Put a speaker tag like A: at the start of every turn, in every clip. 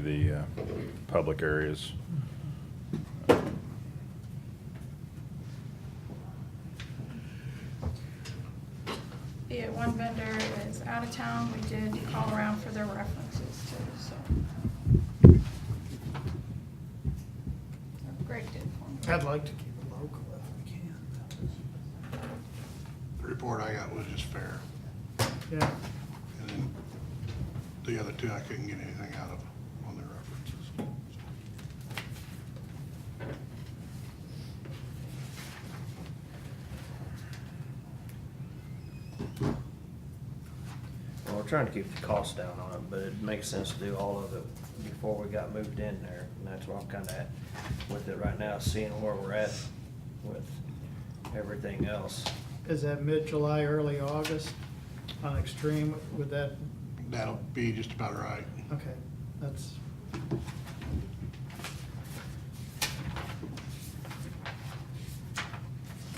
A: the uh, public areas.
B: Yeah, one vendor is out of town, we did call around for their references too, so. Greg did for me.
C: I'd like to keep it local if we can.
D: The report I got was just fair.
C: Yeah,
D: And then the other two, I couldn't get anything out of on their references.
E: Well, we're trying to keep the cost down on it, but it makes sense to do all of it before we got moved in there. And that's where I'm kinda at with it right now, seeing where we're at with everything else.
C: is that mid-July, early August on extreme, would that,
D: That'll be just about right.
C: okay, that's,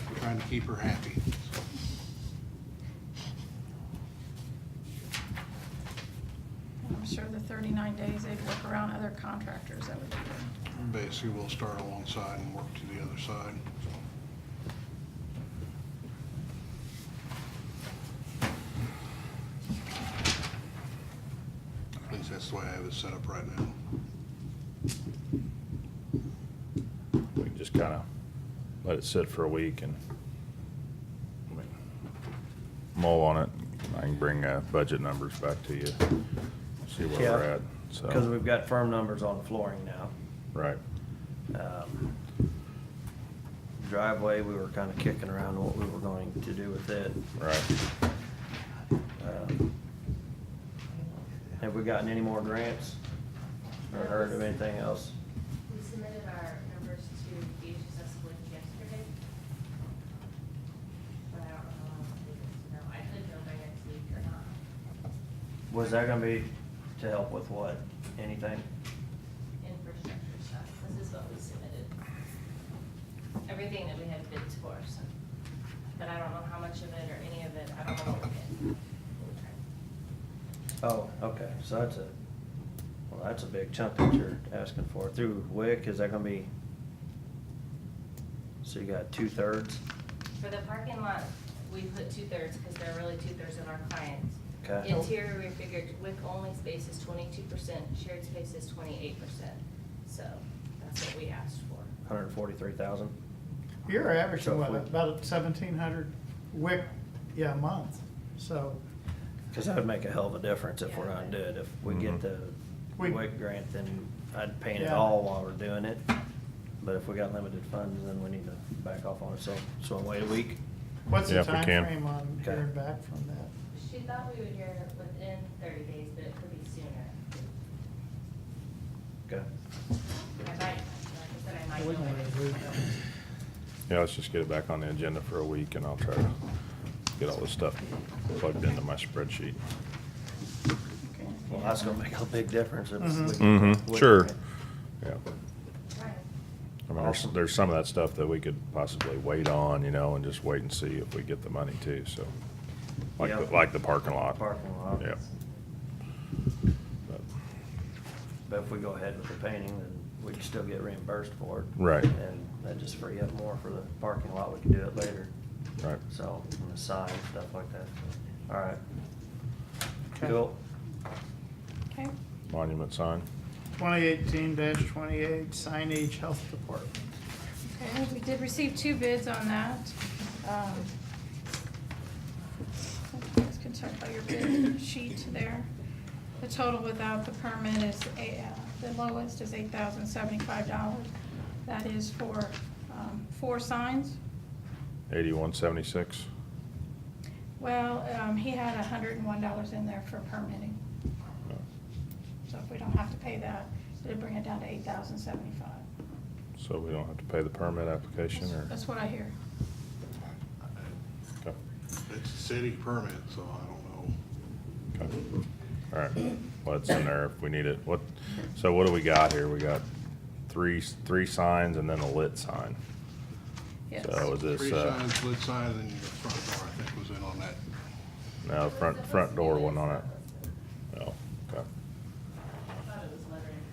D: We're trying to keep her happy.
B: I'm sure the thirty-nine days, they'd work around other contractors that would do it.
D: Basically, we'll start on one side and work to the other side. At least that's the way I have it set up right now.
A: We can just kind of let it sit for a week and I mean, mull on it. I can bring uh, budget numbers back to you, see where we're
E: Yeah.
A: at, so.
E: Cause we've got firm numbers on the flooring now.
A: Right.
E: Um, Driveway, we were kinda kicking around what we were going to do with it.
A: Right.
E: Um, Have we gotten any more grants or heard of anything else?
F: We submitted our numbers to DHS Link yesterday. But I don't know how long it'll take us to know. I could know by next week or not.
E: Was that gonna be to help with what? Anything?
F: Infrastructure stuff. This is what we submitted. Everything that we had bids for, so. But I don't know how much of it or any of it. I don't know what we did.
E: Oh, okay, so that's a, well, that's a big chunk that you're asking for. Through WIC, is that gonna be? So you got two-thirds,
F: For the parking lot, we put two-thirds, because they're really two-thirds of our clients.
E: Okay.
F: Interior, we figured WIC only space is twenty-two percent, shared space is twenty-eight percent, so that's what we asked for.
E: hundred and forty-three thousand?
C: you're
E: So
C: averaging
E: if
C: what,
E: we-
C: about seventeen hundred wick, yeah, a month, so.
E: Cause that would make a hell of a difference if we're gonna do it. If we get
A: Mhm.
E: the
C: We-
E: WIC grant, then I'd paint it
C: Yeah.
E: all while we're doing it. But if we got limited funds, then we need to back off on it, so, so wait a week.
C: What's
A: Yeah,
C: the
A: if we can.
C: timeframe on
E: Okay.
C: hearing back from that?
F: She thought we would hear within thirty days, but it could be sooner.
E: Okay,
F: I might, like I said, I might.
C: We don't
F: know
C: wanna
F: it.
C: lose
F: I don't
C: that.
A: Yeah, let's just get it back on the agenda for a week and I'll try to get all this stuff plugged into my spreadsheet.
B: Okay.
E: well, that's gonna make a big difference if we.
C: Mhm.
E: get the
A: Mm-hmm,
E: WIC
A: sure.
E: grant.
A: Yeah.
F: Right.
A: I mean, there's,
E: Awesome.
A: there's some of that stuff that we could possibly wait on, you know, and just wait and see if we get the money too, so. Like,
E: Yeah.
A: the- like the parking lot.
E: Parking lot.
A: Yep. But-
E: But if we go ahead with the painting, then we can still get reimbursed for it.
A: Right.
E: And that just free up more for the parking lot, we can do it later.
A: Right.
E: So, and the sign, stuff like that, so, all right.
C: Okay.
E: Cool.
B: Okay,
A: Monument sign.
C: Twenty eighteen twenty-eight signage health department.
B: okay, we did receive two bids on that. Um, You guys can check by your bid sheet there. The total without the permit is, a- uh, the lowest is eight thousand seventy-five dollars. That is for um, four signs.
A: Eighty-one seventy-six.
B: Well, um, he had hundred and one dollars in there for permitting, so if we don't have to pay that, it'll bring it down to eight thousand seventy-five.
A: So we don't have to pay the permit application or?
B: That's what I hear.
A: Okay,
D: It's a city permit, so I don't know.
A: okay. All right, well, it's in there if we need it. What, so what do we got here? We got three, s- three signs and then a lit sign.
B: Yes.
A: So is this,
D: Three
A: uh,
D: signs, lit sign, and your front door, I think, was in on that.
A: no, front, front door one on it. Oh,